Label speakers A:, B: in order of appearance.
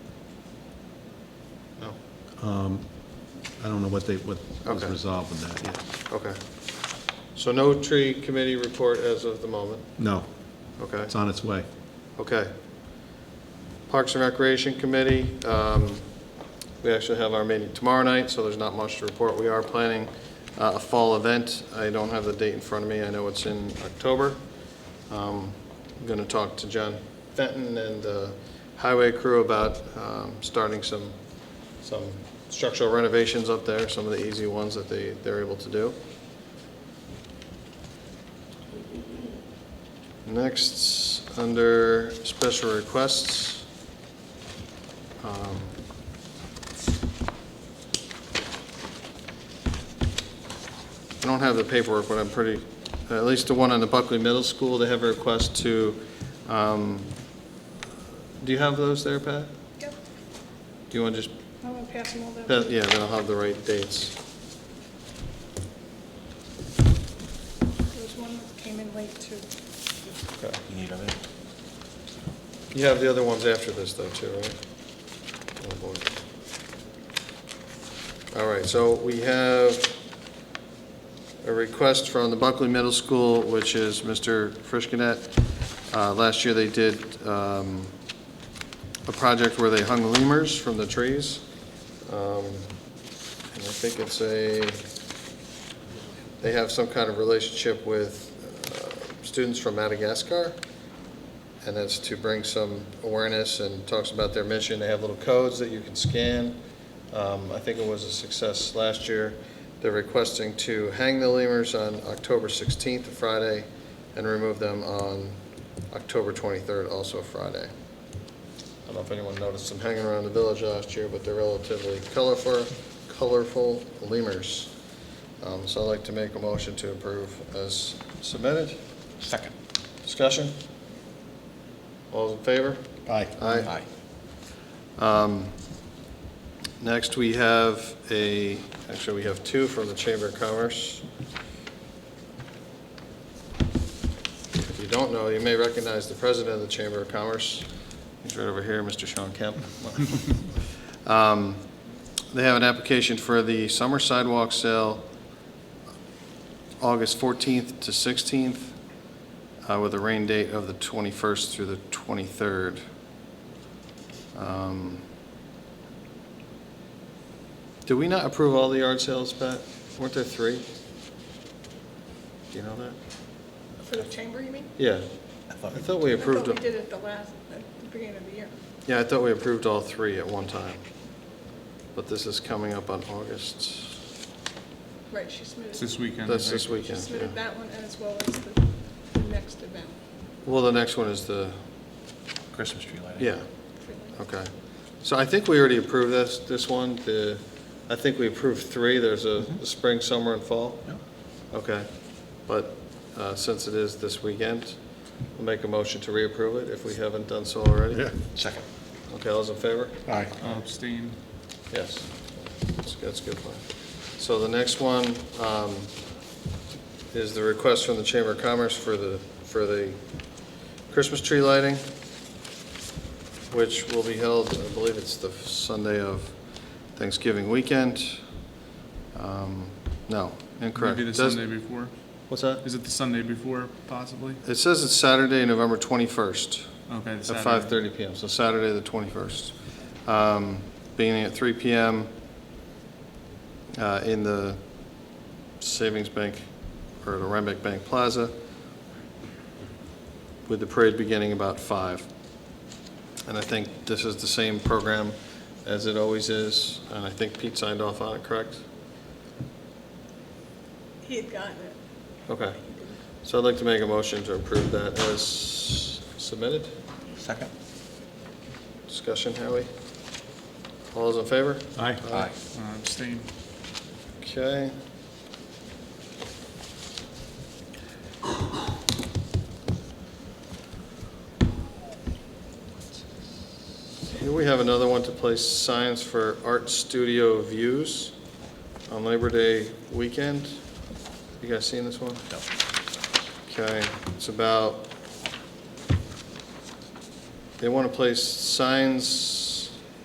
A: I don't know what they, what was
B: Okay.
A: resolved with that yet.
B: Okay. So no tree committee report as of the moment,
A: No,
B: okay?
A: it's on its way.
B: Okay. Parks and Recreation Committee, um, we actually have our meeting tomorrow night, so there's not much to report. We are planning uh, a fall event. I don't have the date in front of me. I know it's in October. Um, I'm going to talk to John Fenton and the highway crew about um, starting some, some structural renovations up there, some of the easy ones that they, they're able to do. Next, under special requests. um, I don't have the paperwork, but I'm pretty, at least the one on the Buckley Middle School, they have a request to, um, do you have those there, Pat?
C: Yep,
B: Do you want to just,
C: I'm gonna pass them all down.
B: Pat, yeah, then I'll have the right dates.
C: There's one that came in late too.
B: Okay.
D: You need other?
B: You have the other ones after this, though, too, right? Oh, boy. All right, so we have a request from the Buckley Middle School, which is Mr. Frischkinet. Uh, Last year, they did um, a project where they hung lemurs from the trees. Um, And I think it's a, they have some kind of relationship with uh, students from Madagascar and that's to bring some awareness and talks about their mission. They have little codes that you can scan. Um, I think it was a success last year. They're requesting to hang the lemurs on October 16th, a Friday, and remove them on October 23rd, also a Friday. I don't know if anyone noticed them hanging around the village last year, but they're relatively colorful, colorful lemurs. Um, So I'd like to make a motion to approve as submitted.
D: Second.
B: Discussion? All those in favor?
A: Aye.
B: Aye. Um, Next, we have a, actually, we have two from the Chamber of Commerce. If you don't know, you may recognize the president of the Chamber of Commerce. He's right over here, Mr. Sean Kemp. Um, They have an application for the summer sidewalk sale, August 14th to 16th, uh, with a rain date of the 21st through the 23rd. Um, Did we not approve all the yard sales, Pat? Weren't there three? Do you know that?
C: For the chamber, you mean?
B: Yeah,
D: I
B: I
D: thought
B: thought we
C: I thought
B: approved,
C: we did it the last, at the beginning of the year.
B: yeah, I thought we approved all three at one time. But this is coming up on August,
C: Right, she submitted,
E: It's
C: she
E: this weekend. I
B: that's this
E: think.
B: weekend.
C: submitted
B: yeah.
C: that one as well as the, the next event.
B: Well, the next one is the,
D: Christmas tree lighting.
B: yeah,
C: for the-
B: okay. So I think we already approved this, this one, the, I think we approved three, there's a a spring, summer, and fall.
D: No?
B: Okay, but uh, since it is this weekend, I'll make a motion to reapprove it if we haven't done so already.
A: Yeah.
D: Second.
B: Okay, all's in favor?
A: Aye.
E: I'll Oh, abstain.
B: Yes. That's- That's a good plan. So the next one um, is the request from the Chamber of Commerce for the, for the Christmas tree lighting, which will be held, I believe it's the Sunday of Thanksgiving weekend. Um, No, incorrect.
E: Maybe the
B: Does-
E: Sunday before.
B: What's that?
E: Is it the Sunday before, possibly?
B: It says it's Saturday, November 21st.
E: Okay, the Saturday.
B: At 5:30 PM, so Saturday, the 21st. Um, Beginning at 3 PM uh, in the Savings Bank, or the Rhinebeck Bank Plaza, with the parade beginning about 5. And I think this is the same program as it always is, and I think Pete signed off on it, correct?
C: He had gotten it.
B: Okay. So I'd like to make a motion to approve that as submitted.
D: Second.
B: Discussion, Howie? All those in favor?
A: Aye.
E: Uh, Abstain.
B: Okay. Here we have another one to place signs for art studio views on Labor Day weekend. You guys seen this one?
D: No.
B: Okay, it's about, they want to place signs